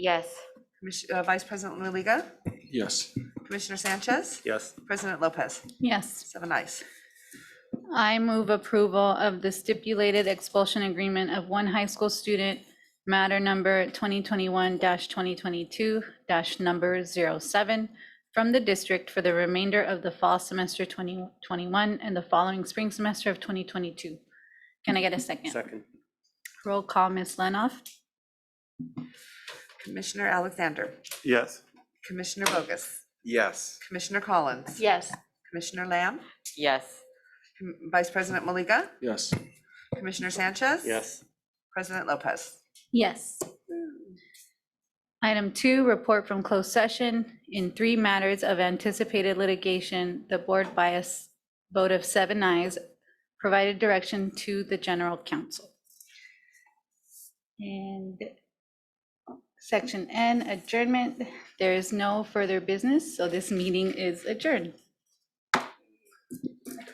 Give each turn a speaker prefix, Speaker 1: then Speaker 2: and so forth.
Speaker 1: Yes.
Speaker 2: Commis- uh, Vice President Maliga,
Speaker 3: Yes.
Speaker 2: Commissioner Sanchez,
Speaker 4: Yes.
Speaker 2: President Lopez,
Speaker 5: Yes,
Speaker 2: seven ayes.
Speaker 5: I move approval of the stipulated expulsion agreement of one high school student, matter number 2021-2022-number 07, from the district for the remainder of the fall semester 2021 and the following spring semester of 2022. Can I get a second?
Speaker 4: Second.
Speaker 5: Roll call, Ms. Lenoff?
Speaker 2: Commissioner Alexander,
Speaker 4: Yes.
Speaker 2: Commissioner Bogus,
Speaker 4: Yes.
Speaker 2: Commissioner Collins.
Speaker 1: Yes.
Speaker 2: Commissioner Lamb,
Speaker 1: Yes.
Speaker 2: Com- Vice President Maliga,
Speaker 3: Yes.
Speaker 2: Commissioner Sanchez.
Speaker 4: Yes.
Speaker 2: President Lopez.
Speaker 5: Yes. Item two, report from closed session. In three matters of anticipated litigation, the board by a s- vote of seven ayes provided direction to the general counsel. And section N, adjournment. There is no further business, so this meeting is adjourned.